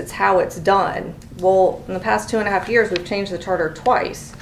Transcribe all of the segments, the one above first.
it's how it's done. Well, in the past two and a half years, we've changed the charter twice.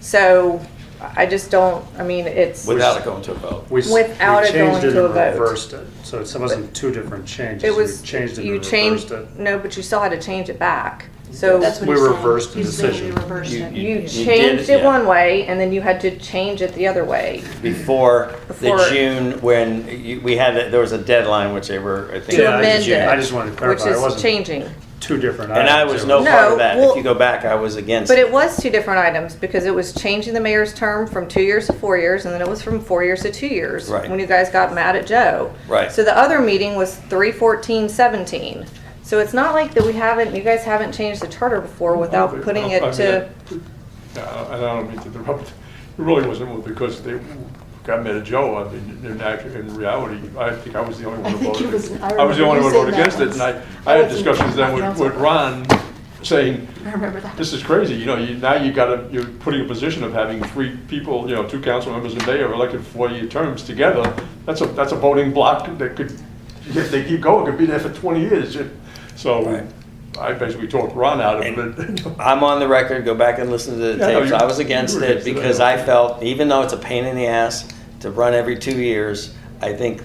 So I just don't, I mean, it's, without it going to a vote. We s- Without we it changed going it to and a vote. Reversed it, so it wasn't two different changes. it was, We changed it you and reversed changed, it. no, but you still had to change it back. So That's what We he's saying. reversed the He's saying we decision. reversed You- it. you- you did changed it, it yeah. one way and then you had to change it the other way. Before the Before- June, when you- we had, it- there was a deadline, which they were, I think. To it was amend June. it. I just wanted to clarify, it Which is wasn't- changing. Two different And items. I was no No, part of that. If well- you go back, I was against. But it was two different items because it was changing the mayor's term from two years to four years, and then it was from four years to two years. Right. When you guys got mad at Joe. Right. So the other meeting was three fourteen seventeen. So it's not like that we haven't, you guys haven't changed the charter before without putting it to, No, I don't mean to interrupt, it really wasn't because they got mad at Joe, I mean, in act- in reality, I think I was the only one I who think voted. it was- I was remember the only you one who voted saying that against it, and I, once. I That had was in discussions then with, council. with Ron, saying, I remember that. this is crazy, you know, you, now you gotta, you're putting a position of having three people, you know, two council members and mayor elected four-year terms together, that's a, that's a voting block that could, if they keep going, could be there for twenty years, Right. so I basically talked Ron out of it. I'm on the record, go back and listen to the Yeah, no, tapes, you- I was you against were it against it, I because know. I felt, even though it's a pain in the ass to run every two years, I think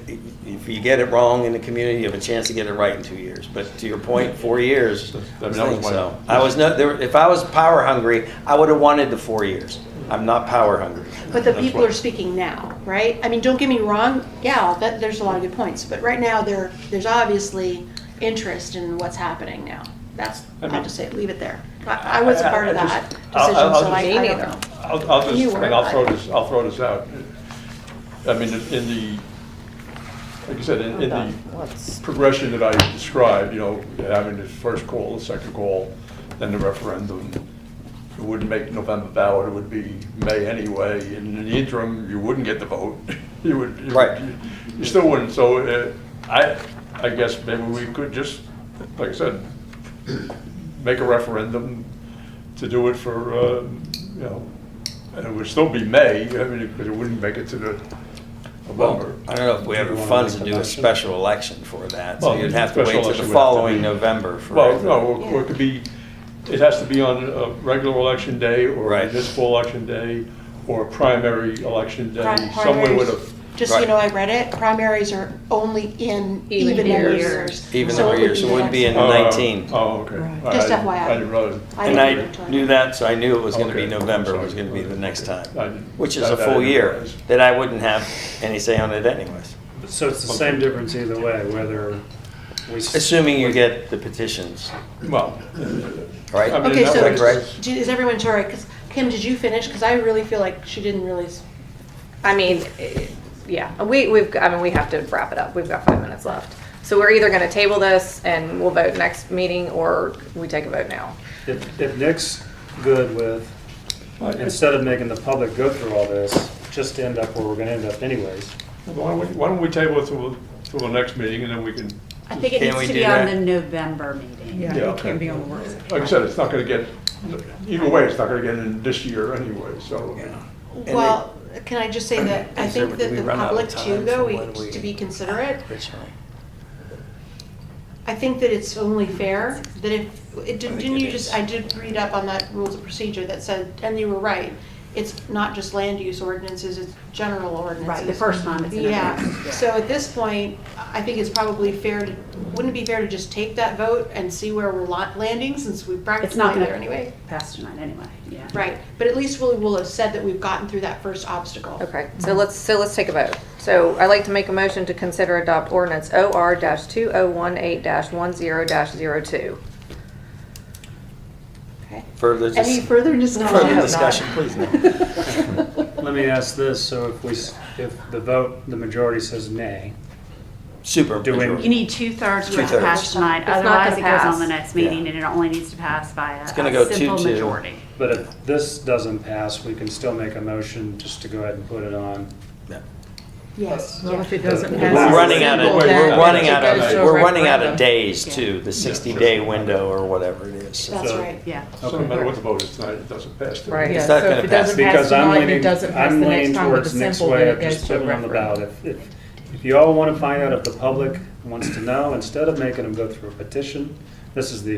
if you get it wrong in the community, you have a chance to get it right in two years. But to your point, four years, That- I that was think my- so. I was no, there, if I was power hungry, I would have wanted the four years. I'm not power hungry. But the That's people what- are speaking now, right? I mean, don't get me wrong, yeah, that, there's a lot of good points, but right now, there, there's obviously interest in what's happening now. That's, I I'll mean- just say, it, leave it there. I I wasn't I- I- part of I that just- decision, I'll- I'll- I'll so I, just- I Me don't neither. know. I'll, I'll You just, were and I'll throw right. this, I'll throw this out. I mean, in the, like you said, in in the progression that I described, you know, having the first call, the second call, then the referendum, it wouldn't make November ballot, it would be May anyway, and in the interim, you wouldn't get the vote. You would. you would- Right. You still wouldn't, so uh, I, I guess maybe we could just, like I said, make a referendum to do it for, um, you know, and it would still be May, I mean, because it wouldn't make it to the Well, November. I don't know if we have Do the you wanna funds make to an do a election? special election for that, so Well, you'd have to wait special till election the would have to following be- November for. Well, everything. no, or- or it could be, it has to be on a regular election day or Right. a municipal election day or a primary election day, Pri- somewhere with primaries, a, Just so you Right. know, I read it, primaries are only in Even even number years. years. Even So number it would years, be it the wouldn't be next in one. nineteen. Uh, oh, okay. I- Just I- FYI. I didn't realize. I And didn't read I it. knew that, so I knew it was gonna be Okay. November Sorry. was gonna be the next time, I didn't- which is that- a that I full didn't year, realize. that I wouldn't have any say on it anyways. So it's the same difference either way, whether we. s- Assuming you get the petitions, Well, right? I mean, Okay, that so, was- Right. do- is everyone sorry, because, Kim, did you finish? Because I really feel like she didn't really s- I mean, eh, yeah, we, we've, I mean, we have to wrap it up. We've got five minutes left. So we're either gonna table this and we'll vote next meeting, or we take a vote now. If, if Nick's good with, instead of making the public go through all this, just end up where we're gonna end up anyways. why don't we- why don't we table it till, till the next meeting and then we can, I think it Can needs we to do be on that? the November meeting. Yeah, It okay. can't be on the work session. like I said, it's not gonna get, either way, it's not gonna get in this year anyway, so. they- Well, can I just say that I Is there- think do that we the run out of public time too, though, from we- when we- to be considerate, Originally. I think that it's only fair that if, it- I think didn't it you is. just, I did read up on that rules of procedure that said, and you were right, it's not just land use ordinances, it's general ordinances. Right, the first time it's in effect, Yeah, yeah. so at this point, I think it's probably fair to, wouldn't it be fair to just take that vote and see where we're lot- landing, since we It's practically not there gonna anyway? pass tonight anyway, yeah. Right, but at least we'll, we'll have said that we've gotten through that first obstacle. Okay, so let's, so let's take a vote. So I'd like to make a motion to consider adopt ordinance OR dash two oh one eight dash one zero dash zero two. Okay. Further Any dis- further discussion? further discussion, please, no. Let me ask this, so if we, s- if the vote, the majority says nay, Super. Do we- majority. You need two-thirds to Two-thirds. pass tonight, not otherwise it gonna goes pass. on the next meeting, Yeah. and it only needs to pass by a gonna go a simple two-two. majority. but if this doesn't pass, we can still make a motion just to go ahead and put it on. No. Yes. Well, if it doesn't We're pass. We're as a running out of, single, we're then running it out goes of, to a we're running out of referendum. days Yeah. too, the sixty-day window or whatever it is. so. That's So- right. Yeah. So no matter what the vote is tonight, it doesn't pass. Right. Yeah, It's not so gonna if it pass. doesn't pass Because I'm tonight, it leaning, doesn't pass the I'm next leaning time with a towards next simple, way then of it goes just to a putting it on the ballot. referendum. If, if, if you all want to find out if the public wants to know, instead of making them go through a petition, this is the